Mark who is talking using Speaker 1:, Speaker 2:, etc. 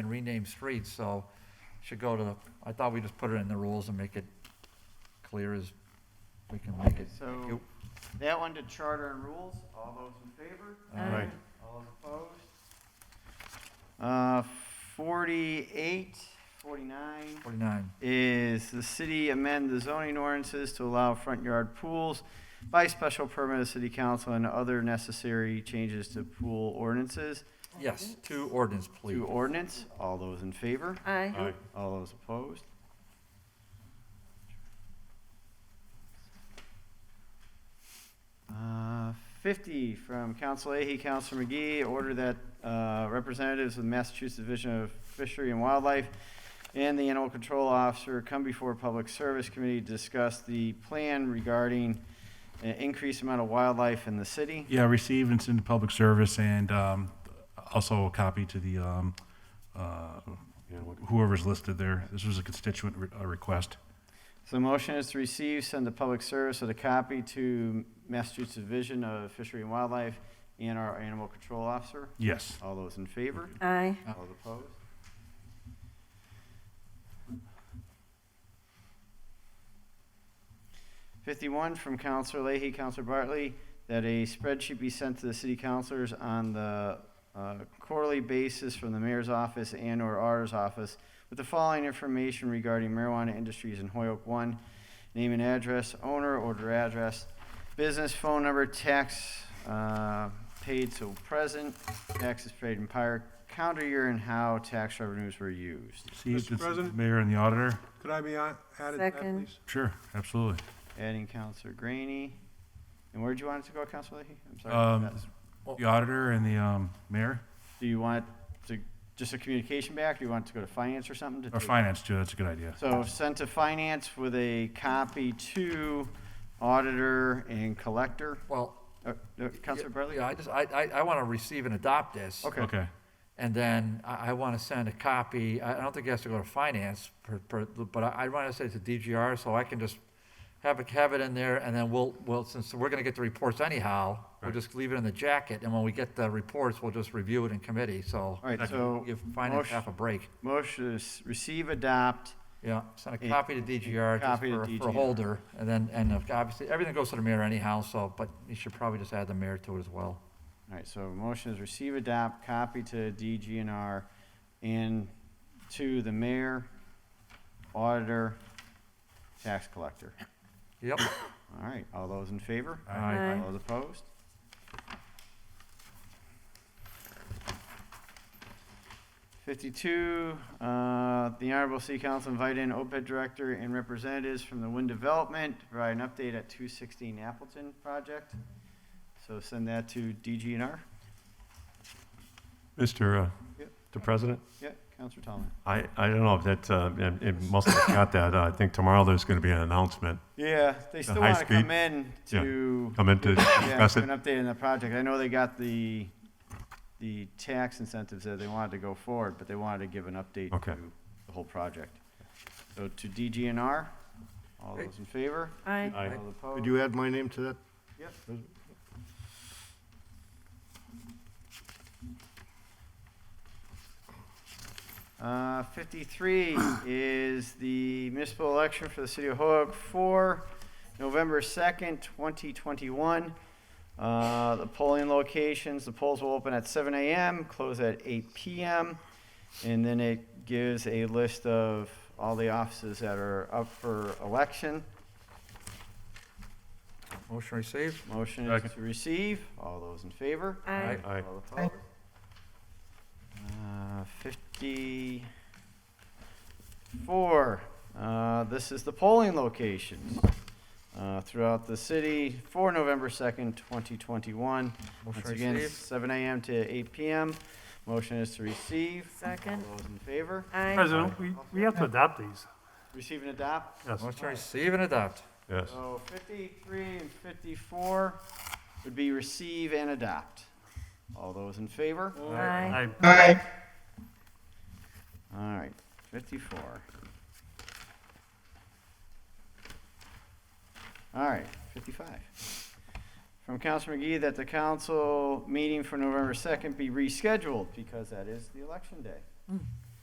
Speaker 1: and rename streets, so should go to, I thought we just put it in the rules and make it clear as we can make it. Thank
Speaker 2: So
Speaker 1: you.
Speaker 2: that one to charter and rules, all those in favor?
Speaker 1: All right.
Speaker 2: All opposed? Uh, 48, 49
Speaker 1: Forty-nine.
Speaker 2: is the city amend the zoning ordinances to allow front yard pools by special permit of city council and other necessary changes to pool ordinances.
Speaker 1: Yes, two ordinance, please.
Speaker 2: To ordinance, all those in favor?
Speaker 3: Aye.
Speaker 4: Aye.
Speaker 2: All those opposed? Uh, 50 from Council Leahy, Council McGee, order that uh, representatives of the Massachusetts Division of Fishery and Wildlife and the Animal Control Officer come before Public Service Committee to discuss the plan regarding an increased amount of wildlife in the city.
Speaker 3: Yeah, receive and send to public service and um, also a copy to the, um, uh, whoever's listed there. This was a constituent re- uh, request.
Speaker 2: So the motion is to receive, send to public service with a copy to Massachusetts Division of Fishery and Wildlife and our Animal Control Officer.
Speaker 3: Yes.
Speaker 2: All those in favor?
Speaker 4: Aye.
Speaker 2: All opposed? Fifty-one from Counselor Leahy, Counselor Bartley, that a spreadsheet be sent to the city councilors on the uh, quarterly basis from the mayor's office and/or ours office with the following information regarding marijuana industries in Hoyoke One, name and address, owner, order address, business phone number, tax uh, paid till present, taxes paid in prior calendar year, and how tax revenues were used.
Speaker 3: Received
Speaker 5: Mr.
Speaker 3: and sent to the
Speaker 5: President?
Speaker 3: Mayor and the auditor.
Speaker 5: Could I be on- added to that,
Speaker 4: Second.
Speaker 5: please?
Speaker 3: Sure, absolutely.
Speaker 2: Adding Counselor Graney. And where'd you want it to go, Counselor Leahy? I'm sorry. I
Speaker 3: Um,
Speaker 2: forgot.
Speaker 3: The auditor and the um, mayor,
Speaker 2: Do you want it to, just a communication back? Do you want it to go to finance or something? to
Speaker 3: or
Speaker 2: take-
Speaker 3: finance too, that's a good idea.
Speaker 2: So sent to finance with a copy to auditor and collector.
Speaker 1: Well.
Speaker 2: Uh, uh, Counselor Bartley?
Speaker 1: Yeah, I just, I, I, I want to receive and adopt this.
Speaker 2: Okay.
Speaker 3: Okay,
Speaker 1: And then I, I want to send a copy, I, I don't think it has to go to finance, per, per, but I, I want to send it to DGR, so I can just have it, have it in there, and then we'll, we'll, since we're gonna get the reports anyhow, we'll
Speaker 3: Right.
Speaker 1: just leave it in the jacket, and when we get the reports, we'll just review it in committee, so.
Speaker 2: All right,
Speaker 3: Second.
Speaker 2: so
Speaker 1: Give finance
Speaker 2: motion-
Speaker 1: half a break.
Speaker 2: Motion is receive, adopt,
Speaker 1: Yeah, send a
Speaker 2: Yeah.
Speaker 1: copy to DGR just
Speaker 2: Copy to
Speaker 1: for, for
Speaker 2: DGR.
Speaker 1: a holder, and then, and if- obviously, everything goes to the mayor anyhow, so, but you should probably just add the mayor to it as well.
Speaker 2: All right, so motion is receive, adopt, copy to DGNR and to the mayor, auditor, tax collector.
Speaker 1: Yep.
Speaker 2: All right, all those in favor?
Speaker 4: Aye.
Speaker 2: All those opposed? Fifty-two, uh, the Honorable City Council invite in OPED Director and representatives from the Wind Development to provide an update at two sixteen Appleton project. So send that to DGNR.
Speaker 6: Mr. uh,
Speaker 2: Yep.
Speaker 6: the President,
Speaker 2: Yeah, Counselor Tomlin.
Speaker 6: I, I don't know if that, uh, it- it must have got that. Uh, I think tomorrow there's going to be an announcement.
Speaker 2: Yeah, they still
Speaker 6: high
Speaker 2: want to
Speaker 6: speed-
Speaker 2: come in
Speaker 6: yeah,
Speaker 2: to.
Speaker 6: come in to
Speaker 2: Yeah,
Speaker 6: discuss
Speaker 2: give
Speaker 6: it.
Speaker 2: An update on the project. I know they got the, the tax incentives that they wanted to go forward, but they wanted to give an update
Speaker 6: Okay.
Speaker 2: to the whole project. So to DGNR, all those in favor?
Speaker 4: Aye.
Speaker 6: Aye.
Speaker 2: All opposed?
Speaker 7: Could you add my name to that?
Speaker 2: Yep. Uh, 53 is the municipal election for the city of Hoyoke for November 2nd, 2021. Uh, The polling locations, the polls will open at 7 a.m., close at 8 p.m. And then it gives a list of all the offices that are up for election.
Speaker 1: Motion received.
Speaker 2: Motion is to receive. All those in favor?
Speaker 4: Aye.
Speaker 6: Aye.
Speaker 2: All opposed? Uh, Fifty-four. Uh, This is the polling locations uh, throughout the city for November second, twenty twenty-one.
Speaker 1: Motion
Speaker 2: Once again,
Speaker 1: received.
Speaker 2: seven AM to eight PM. Motion is to receive.
Speaker 4: Second.
Speaker 2: All those in favor?
Speaker 4: Aye.
Speaker 8: President, we, we have to adopt these.
Speaker 2: Receive and adopt.
Speaker 6: Yes,
Speaker 1: Motion receive and adopt.
Speaker 6: yes.
Speaker 2: So fifty-three and fifty-four would be receive and adopt. All those in favor?
Speaker 4: Aye.
Speaker 8: I-
Speaker 2: All right, fifty-four. All right, fifty-five. From Council McGee that the council meeting for November second be rescheduled because that is the election day.